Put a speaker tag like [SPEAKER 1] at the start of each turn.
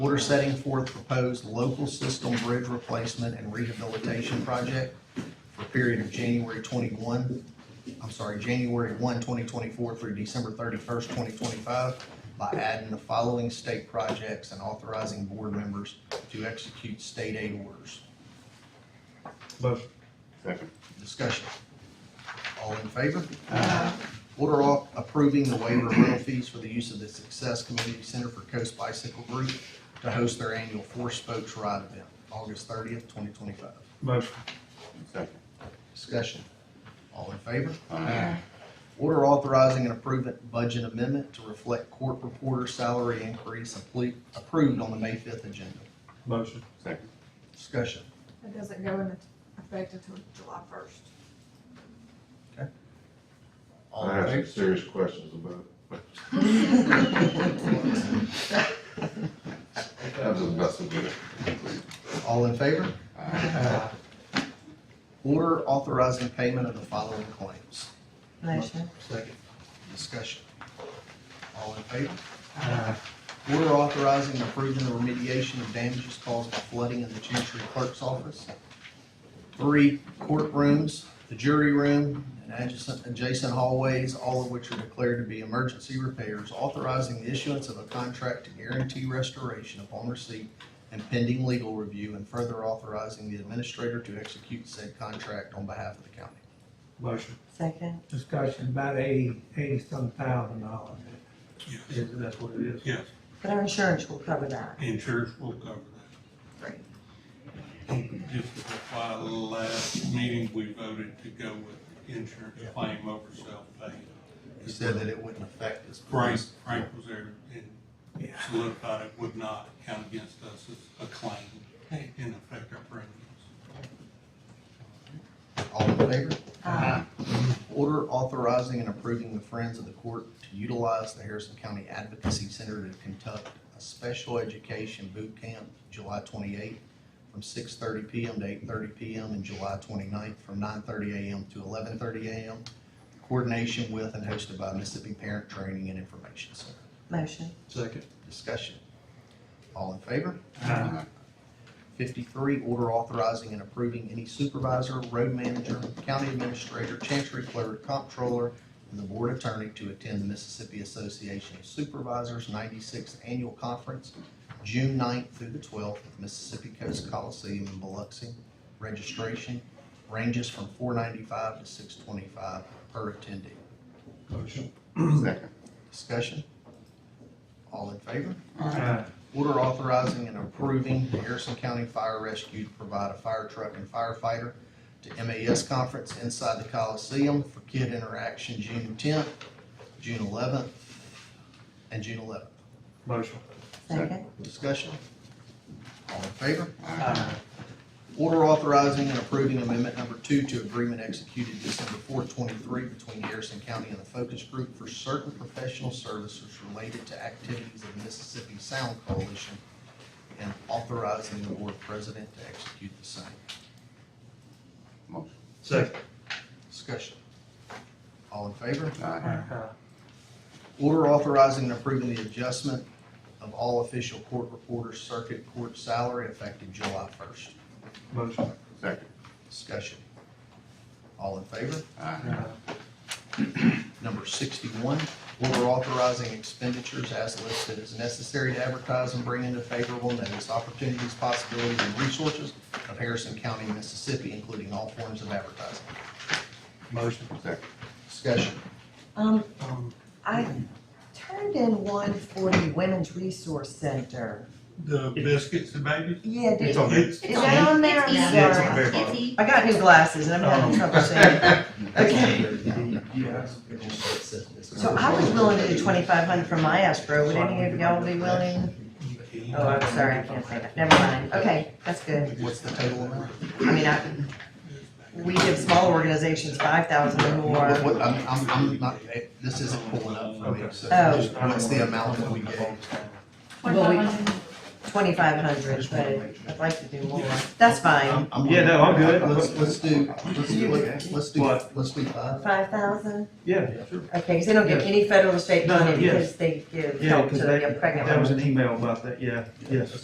[SPEAKER 1] Order setting forth proposed local system bridge replacement and rehabilitation project for a period of January twenty-one, I'm sorry, January 1, 2024, through December thirty-first, twenty twenty-five by adding the following state projects and authorizing board members to execute state aid orders.
[SPEAKER 2] Motion.
[SPEAKER 3] Second.
[SPEAKER 1] Discussion. All in favor? Order off approving the waiver of rental fees for the use of the Success Community Center for Coast Bicycle Group to host their annual Four Spokes Ride event, August thirtieth, twenty twenty-five.
[SPEAKER 2] Motion.
[SPEAKER 3] Second.
[SPEAKER 1] Discussion. All in favor?
[SPEAKER 3] Aye.
[SPEAKER 1] Order authorizing an approved budget amendment to reflect court reporter salary increase apple- approved on the May fifth agenda.
[SPEAKER 2] Motion.
[SPEAKER 3] Second.
[SPEAKER 1] Discussion.
[SPEAKER 4] It doesn't go into effect until July first.
[SPEAKER 1] All
[SPEAKER 5] I
[SPEAKER 1] in
[SPEAKER 5] have some
[SPEAKER 1] favor?
[SPEAKER 5] serious questions about it. I'm just messing with
[SPEAKER 1] All in favor?
[SPEAKER 5] it.
[SPEAKER 1] Order authorizing payment of the following claims.
[SPEAKER 6] Motion.
[SPEAKER 1] Second. Discussion. All in favor? Order authorizing and approving the remediation of damages caused by flooding in the Chancery Clerk's office. Three courtrooms, the jury room, and adjacent, adjacent hallways, all of which are declared to be emergency repairs. Authorizing the issuance of a contract to guarantee restoration upon receipt and pending legal review, and further authorizing the administrator to execute said contract on behalf of the county.
[SPEAKER 2] Motion.
[SPEAKER 6] Second.
[SPEAKER 7] discussion about eighty, eighty-some thousand dollars.
[SPEAKER 2] Isn't that what it is?
[SPEAKER 8] Yes,
[SPEAKER 6] But our insurance will cover that.
[SPEAKER 8] insurance will cover that.
[SPEAKER 6] Great.
[SPEAKER 8] Just to reply, last meeting, we voted to go with insurance claim over self-pay.
[SPEAKER 1] He said that it wouldn't affect us.
[SPEAKER 8] Frank, Frank was there and
[SPEAKER 7] Yeah.
[SPEAKER 8] solidified it would not count against us as a claim and affect our premiums.
[SPEAKER 1] All in favor? Uh-huh.
[SPEAKER 6] Aye.
[SPEAKER 1] Order authorizing and approving the Friends of the Court to utilize the Harrison County Advocacy Center to conduct a special education boot camp July twenty-eighth from six thirty PM to eight thirty PM and July 29th from nine thirty AM to eleven thirty AM. Coordination with and hosted by Mississippi Parent Training and Information Center.
[SPEAKER 6] Motion.
[SPEAKER 2] Second.
[SPEAKER 1] Discussion. All in favor?
[SPEAKER 2] Aye.
[SPEAKER 1] Fifty-three, order authorizing and approving any supervisor, road manager, county administrator, chancery clerk, comptroller, and the board attorney to attend the Mississippi Association of Supervisors ninety-sixth Annual Conference, June 9th through the twelfth, at Mississippi Coast Coliseum in Biloxi. Registration ranges from four ninety-five to six twenty-five per attendee.
[SPEAKER 2] Motion.
[SPEAKER 3] Second.
[SPEAKER 1] Discussion? All in favor?
[SPEAKER 2] Aye.
[SPEAKER 1] Order authorizing and approving the Harrison County Fire Rescue to provide a fire truck and firefighter to MAS conference inside the Coliseum for kid interaction June tenth, June eleventh, and June eleventh.
[SPEAKER 2] Motion.
[SPEAKER 6] Second.
[SPEAKER 1] Discussion? All in favor?
[SPEAKER 2] Aye.
[SPEAKER 1] Order authorizing and approving amendment number two to agreement executed December fourth, twenty-three between Harrison County and the Focus Group for certain professional services related to activities of the Mississippi Sound Coalition and authorizing the board president to execute the same.
[SPEAKER 3] Motion.
[SPEAKER 2] Second.
[SPEAKER 1] Discussion. All in favor?
[SPEAKER 2] uh,
[SPEAKER 3] Aye.
[SPEAKER 1] Order authorizing and approving the adjustment of all official court reporter circuit court salary effective July first.
[SPEAKER 2] Motion.
[SPEAKER 3] Second.
[SPEAKER 1] Discussion. All in favor?
[SPEAKER 3] Aye.
[SPEAKER 2] Aye.
[SPEAKER 1] Number sixty-one, order authorizing expenditures as listed as necessary to advertise and bring into favorable notice opportunities, possibilities, and resources of Harrison County, Mississippi, including all forms of advertising.
[SPEAKER 2] Motion.
[SPEAKER 3] Second.
[SPEAKER 1] Discussion.
[SPEAKER 6] Um,
[SPEAKER 2] Um,
[SPEAKER 6] I turned in one for the Women's Resource Center.
[SPEAKER 8] The biscuits and babies?
[SPEAKER 6] Yeah, did,
[SPEAKER 2] It's
[SPEAKER 6] is
[SPEAKER 2] on this.
[SPEAKER 6] that on there? I'm
[SPEAKER 2] Yeah, it's on
[SPEAKER 6] sorry.
[SPEAKER 2] there.
[SPEAKER 9] It's E.
[SPEAKER 6] I got new glasses and I'm
[SPEAKER 2] Oh.
[SPEAKER 6] having trouble seeing. Okay, so I was willing to do twenty-five hundred for my escrow. Would any of y'all be willing? Oh, I'm sorry, I can't say that. Never mind. Okay, that's good.
[SPEAKER 1] What's the total amount?
[SPEAKER 6] I mean, I, we give small organizations five thousand or
[SPEAKER 1] What,
[SPEAKER 6] more.
[SPEAKER 1] what- I'm, I'm, I'm not, eh, this isn't pulling up for me, so
[SPEAKER 6] Oh.
[SPEAKER 1] just what's the amount that we gave?
[SPEAKER 6] Well, we-
[SPEAKER 9] Twenty-five hundred.
[SPEAKER 6] twenty-five hundred,
[SPEAKER 1] Just wanna
[SPEAKER 6] but
[SPEAKER 1] make sure.
[SPEAKER 6] I'd like to do more. That's fine.
[SPEAKER 2] Yeah, no, I'm good.
[SPEAKER 1] Let's, let's do, let's do, let's do,
[SPEAKER 2] What?
[SPEAKER 1] let's do
[SPEAKER 2] Um,
[SPEAKER 1] five.
[SPEAKER 6] Five thousand?
[SPEAKER 2] Yeah,
[SPEAKER 6] Okay, because they don't get any federal or state
[SPEAKER 2] No, no,
[SPEAKER 6] money
[SPEAKER 2] yes.
[SPEAKER 6] because they give
[SPEAKER 2] yeah,
[SPEAKER 6] help
[SPEAKER 2] because
[SPEAKER 6] to
[SPEAKER 2] they,
[SPEAKER 6] the pregnant
[SPEAKER 2] that was
[SPEAKER 6] women.
[SPEAKER 2] an email about that, yeah, yes.